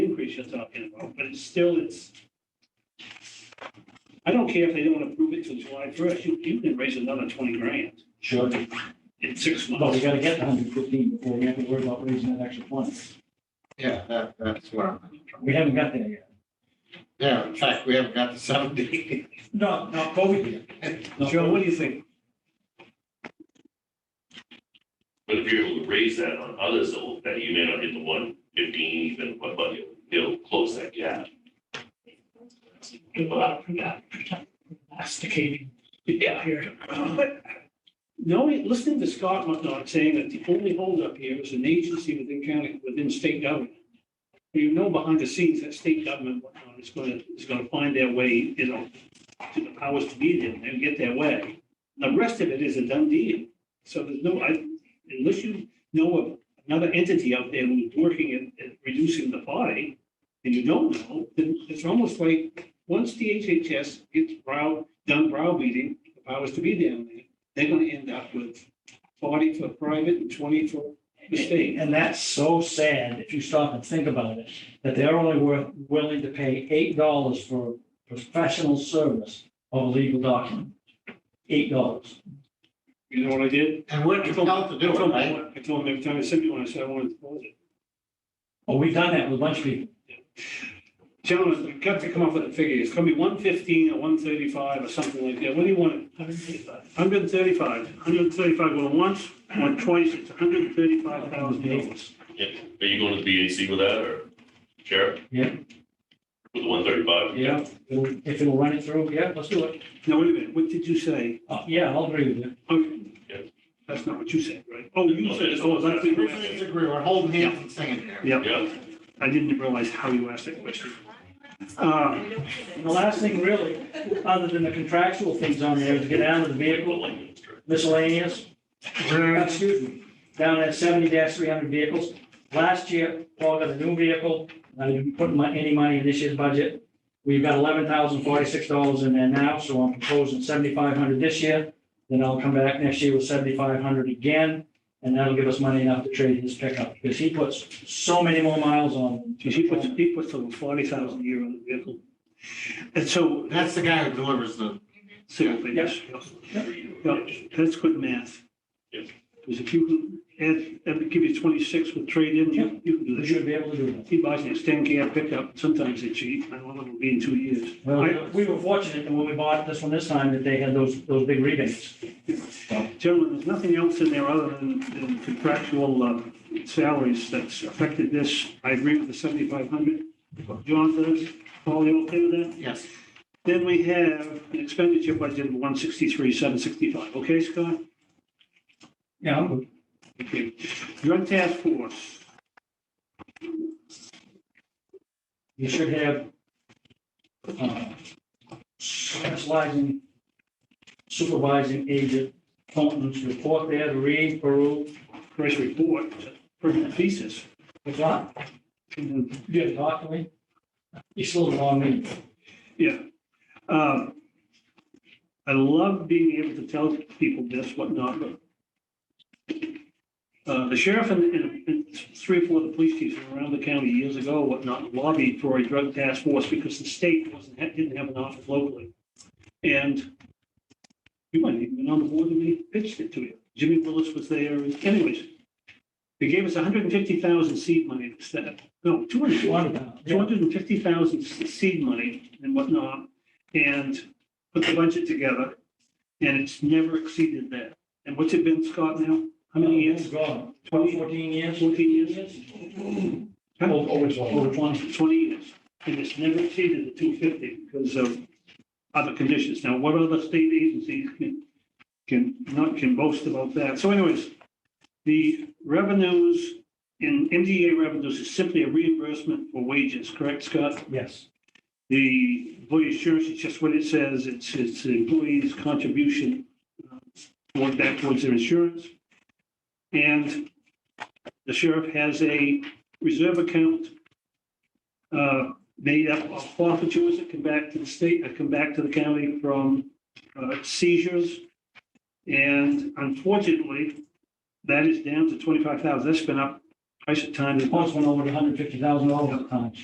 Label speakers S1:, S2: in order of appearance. S1: increase you're talking about, but it's still, it's. I don't care if they don't approve it till July first, you, you can raise another twenty grand
S2: Sure,
S1: in six
S2: but we
S1: months.
S2: gotta get the hundred fifteen before we have to worry about raising that extra twenty.
S3: Yeah, that, that's what I'm,
S2: We haven't got there yet.
S3: yeah, in fact, we haven't got to seventy.
S2: No, not COVID
S1: Joe, what do you think?
S4: But if you're able to raise that on others, though, that you may not hit the one fifteen even, but, but you'll, you'll close that gap.
S5: do a lot of progno- progno- prognosticating
S4: Yeah.
S5: here.
S1: But knowing, listening to Scott whatnot saying that the only holdup here is an agency within county, within state government. You know behind the scenes that state government whatnot is gonna, is gonna find their way, you know, to the powers to be there, they'll get their way. The rest of it is a done deal. So there's no, I, unless you know of another entity out there who's working at, at reducing the body, and you don't know, then it's almost like, once the HHS gets brow, done browbeating, the powers to be down there, they're gonna end up with forty for private and twenty for the
S2: yet.
S1: state.
S2: And that's so sad, if you stop and think about it, that they're only worth, willing to pay eight dollars for professional service of a legal document. Eight dollars.
S1: You know what I did?
S3: And we're compelled to do
S1: I
S3: it,
S1: told them-
S3: right?
S1: I told them every time I sent you one, I said I wanted to close it.
S2: Oh, we've done that with a bunch of people.
S1: Gentlemen, you've got to come up with a figure. It's gonna be one fifteen or one thirty-five or something like that. What do you want? Hundred and thirty-five, hundred and thirty-five going once, going twice, it's hundred and thirty-five thousand dollars.
S4: Are you going to the BAC with that or Sheriff?
S2: Yeah.
S4: With one thirty-five?
S2: Yeah, if it'll run it through, yeah, let's do it.
S1: Now, wait a minute, what did you say?
S2: Uh, Yeah, I'll agree with you.
S1: Okay.
S4: Yeah.
S1: That's not what you said, right? Oh, you
S4: No,
S1: said,
S4: that's-
S1: oh, that's
S3: We
S1: what you
S3: really
S1: asked.
S3: disagree, we're holding hands and singing here.
S1: Yeah,
S4: Yeah.
S1: I didn't realize how you asked that question. Uh,
S2: And the last thing really, other than the contractual things on there, is get down to the vehicle miscellaneous, excuse me, down at seventy three hundred vehicles. Last year, Paul got a new vehicle, I didn't put my, any money in this year's budget. We've got eleven thousand forty-six dollars in there now, so I'm proposing seventy-five hundred this year. Then I'll come back next year with seventy-five hundred again, and that'll give us money enough to trade his pickup, because he puts so many more miles on.
S1: geez, He puts, he puts over forty thousand a year on the vehicle. And so,
S3: That's the guy who delivers the,
S1: civil figures. Yeah, that's good math.
S4: Yeah.
S1: Because if you can add, that would give you twenty-six with trade-in,
S2: Yeah.
S1: you, you can do
S2: We
S1: that.
S2: should be able to do that.
S1: He buys an extend cab pickup, sometimes they cheap, I don't know, it'll be in two years.
S2: Well, we were fortunate that when we bought this one this time, that they had those, those big rebates.
S1: Gentlemen, there's nothing else in there other than than contractual uh, salaries that's affected this. I agree with the seventy-five hundred. John does, Paul, you okay with that?
S3: yes,
S1: Then we have an expenditure budget of one sixty-three, seven sixty-five, okay, Scott?
S2: Yeah, I'm good.
S1: Okay. Drug task force,
S2: you should have uh, supervising, supervising agent Fulton's report there to read, peruse.
S1: price report, permanent thesis.
S2: What's that?
S1: And then,
S2: You gotta talk to me? You still long me.
S1: Yeah. Um, I love being able to tell people this, whatnot, but uh, the sheriff and, and and three or four of the police chiefs from around the county years ago, whatnot, lobbied for a drug task force because the state wasn't, didn't have an office locally. And you might even been on the board when they pitched it to you. Jimmy Willis was there. Anyways, they gave us hundred and fifty thousand seed money to set up. No, two hundred. two
S2: One,
S1: hundred and fifty thousand seed money and whatnot, and put the budget together, and it's never exceeded that. And what's it been, Scott, now? How many years?
S2: Gone. Twelve,
S1: Twenty,
S2: fourteen years?
S1: fourteen years? Huh?
S2: Over over twelve. Over twenty.
S1: Twenty years, and it's never exceeded the two fifty because of other conditions. Now, what other state agencies can, can, not, can boast about that? So anyways, the revenues in MDA revenues is simply a reimbursement for wages, correct, Scott?
S2: Yes.
S1: The employee insurance is just what it says. It's, it's the employee's contribution uh, toward back towards their insurance. And the sheriff has a reserve account uh, made up of forfeitures that come back to the state, that come back to the county from uh, seizures. And unfortunately, that is down to twenty-five thousand. That's been up, price of time.
S2: Once went over to hundred fifty thousand dollars at times.